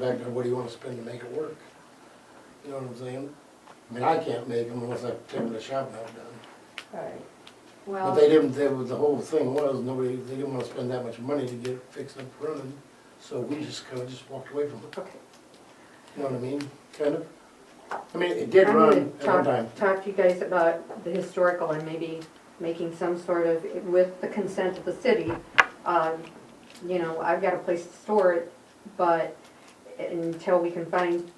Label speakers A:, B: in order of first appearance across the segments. A: Back to what do you wanna spend to make it work? You know what I'm saying? I mean, I can't make them unless I take them to the shop and have it done.
B: Right,
A: But they
C: Well,
A: didn't, they, was- the whole thing was, nobody, they didn't wanna spend that much money to get it fixed up and running, so we just kinda just walked away from it.
B: okay.
A: You know what I mean, kind of? I mean, it did
B: I'm
A: run
B: gonna
A: at one
B: talk-
A: time.
B: Talk to you guys about the historical and maybe making some sort of, with the consent of the city, um, you know, I've got a place to store it, but until we can find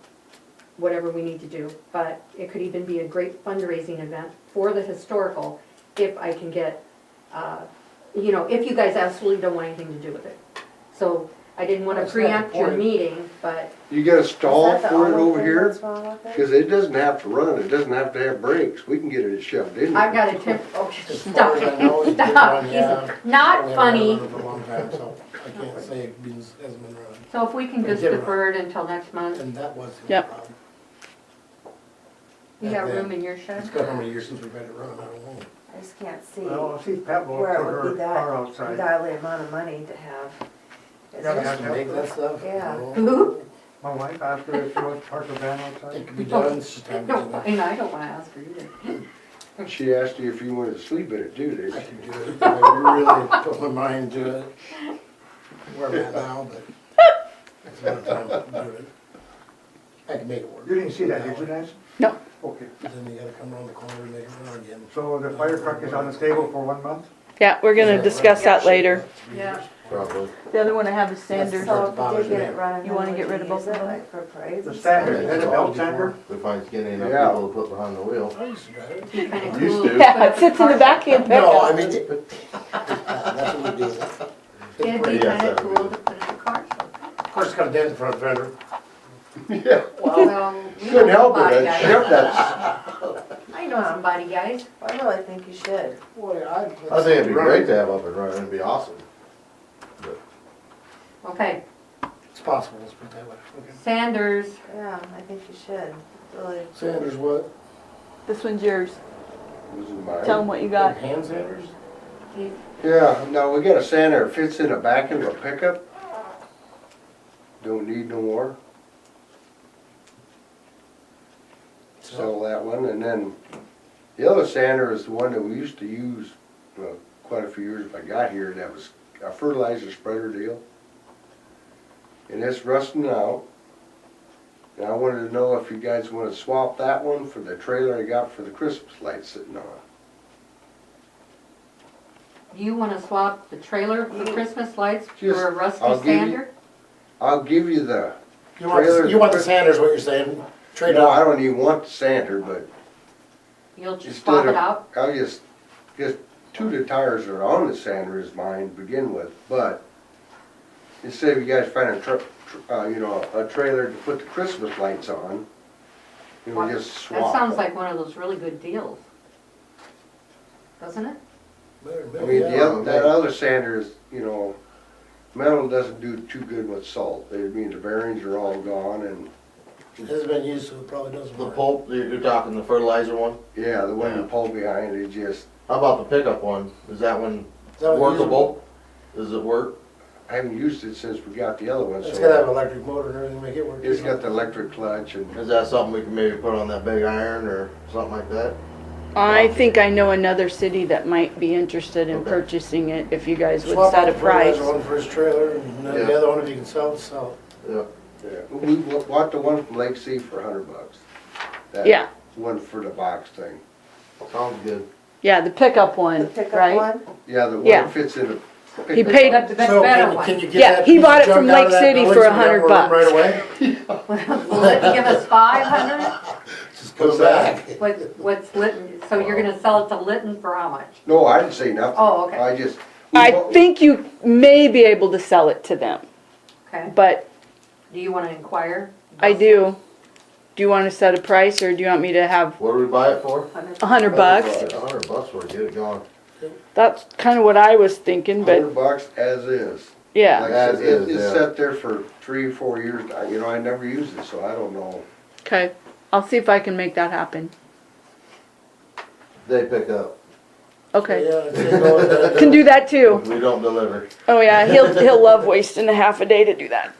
B: whatever we need to do. But it could even be a great fundraising event for the historical if I can get, uh, you know, if you guys absolutely don't want anything to do with it. So I didn't want to
A: That's not the
B: preempt your
A: point.
B: meeting, but,
D: You got a stall
C: Is that the
D: for it
C: olive
D: over
C: thing
D: here?
C: that's wrong with it?
D: Cause it doesn't have to run, it doesn't have to have brakes, we can get it shoved in.
B: I've
D: there.
B: got a temp, oh,
A: As
B: stop
A: far as I know, it
B: it,
A: did
B: stop.
A: run,
B: He's
A: yeah.
B: not
A: They
B: funny.
A: haven't run it for a long time, so I can't say it means- hasn't been running,
B: So if we can
A: It
B: just
A: did run.
B: defer it until next month,
A: and that was the
E: Yep.
A: problem.
B: you
A: Back
B: got
A: then.
B: room in your
A: It's
B: shed?
A: got how many years since we've had it run, I don't know.
C: I just can't see
F: Well, I'll see if Pat will put
C: where it would
F: her
C: be that
F: car outside.
C: ungodly amount of money to have. It's
F: Yeah,
C: just-
A: Just to make that stuff.
C: Yeah.
A: you know,
F: My wife asked her if she wants to park her van
A: It
F: outside.
A: could be done, it's just time to
B: No,
A: do it.
B: and I don't wanna ask her either.
D: She asked you if you wanted to sleep in it too, did
A: I
D: she?
A: could do it if I really put my mind to it, where I'm at now, but it's not time to do it. I can make it work.
F: You didn't see that, did you, Nancy?
E: No.
F: Okay,
A: Then you gotta come around the corner and make it run again.
F: so the fire truck is on the table for one month?
E: Yeah, we're gonna discuss that later.
B: Yeah.
D: Probably.
E: The other one I have is
A: That's-
E: Sanders.
C: So if you did get it running,
E: You wanna
C: then
E: get
C: would
E: rid of both
C: use
E: of
C: it,
E: them?
C: Like for parades
F: The
C: and
F: sander,
C: stuff?
F: is that a belt sander?
G: If I was getting enough
D: Yeah.
G: people to put behind the wheel.
A: I used to drive it.
B: Be kinda
G: Used
B: cool.
G: to.
E: Yeah, it sits in the back end
A: No, I
E: pickup.
A: mean, it- that's what we do.
B: It'd be
A: Of
G: Yes,
B: kinda
G: that would be-
B: cool to put in the car.
A: course, it's gotta dance in front of the vendor.
D: Yeah,
B: Well, we
D: couldn't
B: know some
D: help it,
B: body
D: that
B: guys.
D: shoved that,
B: I know some body guys.
C: I really think you should.
A: Boy, I.
G: I think it'd be great to have up and running, it'd be awesome.
B: Okay,
A: It's possible, let's put it that way. Okay.
B: Sanders,
C: Yeah, I think you should, really.
A: Sanders what?
E: This one's yours.
D: this is mine.
E: Tell them what you got.
A: Hand sanders?
B: you-
D: Yeah, no, we got a sander, that fits in the back end of a pickup. Don't need no more, sell that one, and then the other sander is the one that we used to use, well, quite a few years I got here, that was a fertilizer spreader deal. And it's rusting out. And I wanted to know if you guys wanna swap that one for the trailer I got for the Christmas lights sitting on.
B: you wanna swap the trailer for Christmas lights
D: Just-
B: for a rusty
D: I'll give you-
B: sander?
D: I'll give you the,
A: You want, the- you want the Sanders, what you're saying? Trade
D: no, I
A: off.
D: don't even want the sander, but
B: You'll just
D: Instead
B: swap
D: of-
B: it out?
D: I'll just, just two of the tires that are on the sander is mine to begin with, but instead of you guys finding a truck, uh, you know, a trailer to put the Christmas lights on, you know, just
B: That
D: swap.
B: sounds
D: it.
B: like one of those really good deals. Doesn't it?
D: I mean, the other, that other sander is, you know, metal doesn't do too good with salt. I mean, the bearings are all gone and,
A: It has been used, so it probably doesn't
G: The
A: work.
G: pulp, you're, you're talking the fertilizer one?
D: yeah, the one you
G: Yeah.
D: pull behind, it just,
G: How about the pickup one? Is that one
A: Is that what it is?
G: workable? Does it work?
D: I haven't used it since we got the other one,
A: It's gotta have
D: so.
A: an electric motor and everything, to make it work.
D: It's got the electric clutch and
G: Is that something we can maybe put on that big iron or something like that?
E: I think I know another city that might be interested in
G: Okay.
E: purchasing it if you guys would
A: Swap
E: set a
A: out the fertilizer
E: price.
A: One for his trailer, and then the
G: Yeah.
A: other one if you can sell, it, sell.
G: Yeah.
D: Yeah, we wa- bought the one from Lake Sea for a hundred bucks. That
E: Yeah.
D: One for the box thing.
G: Sounds good.
E: Yeah, the pickup
C: The
E: one,
C: pickup
E: right?
C: one?
D: Yeah, the one
E: Yeah.
D: that fits in a.
E: He paid,
B: That's the
A: it.
B: best
A: So
B: better
A: can you-
B: one.
A: can you get
E: Yeah,
A: that
E: he
A: piece of
E: bought it
A: junk
E: from
A: out of
E: Lake
A: that
E: City
A: building
E: for
A: so we got
E: 100
A: room Right
E: bucks.
A: away?
B: Will it give us five hundred?
A: Just go back.
B: What, what's Litton, so you're gonna sell it to Litton for how much?
D: No, I didn't say nothing.
B: Oh, okay.
D: I just. we
E: I
D: bought-
E: think you may be able to sell it to them,
B: Okay,
E: but
B: do you wanna inquire?
E: I do. Do you wanna set a price or do you want me to have
G: What do we buy it for?
E: a hundred bucks?
G: A hundred bucks for it, get it going.
E: That's kinda what I was thinking, but
D: Hundred bucks as is. Like
E: yeah,
D: I said,
G: As
D: it,
G: is,
D: it's
G: yeah.
D: sat there for three, four years. I- You know, I never used it, so I don't know.
E: okay. I'll see if I can make that happen.
G: They pick up.
E: Okay.
A: Yeah, I'd say go with that.
E: Can do that too.
G: If we don't deliver.
E: Oh yeah, he'll he'll love wasting a half a day to do that.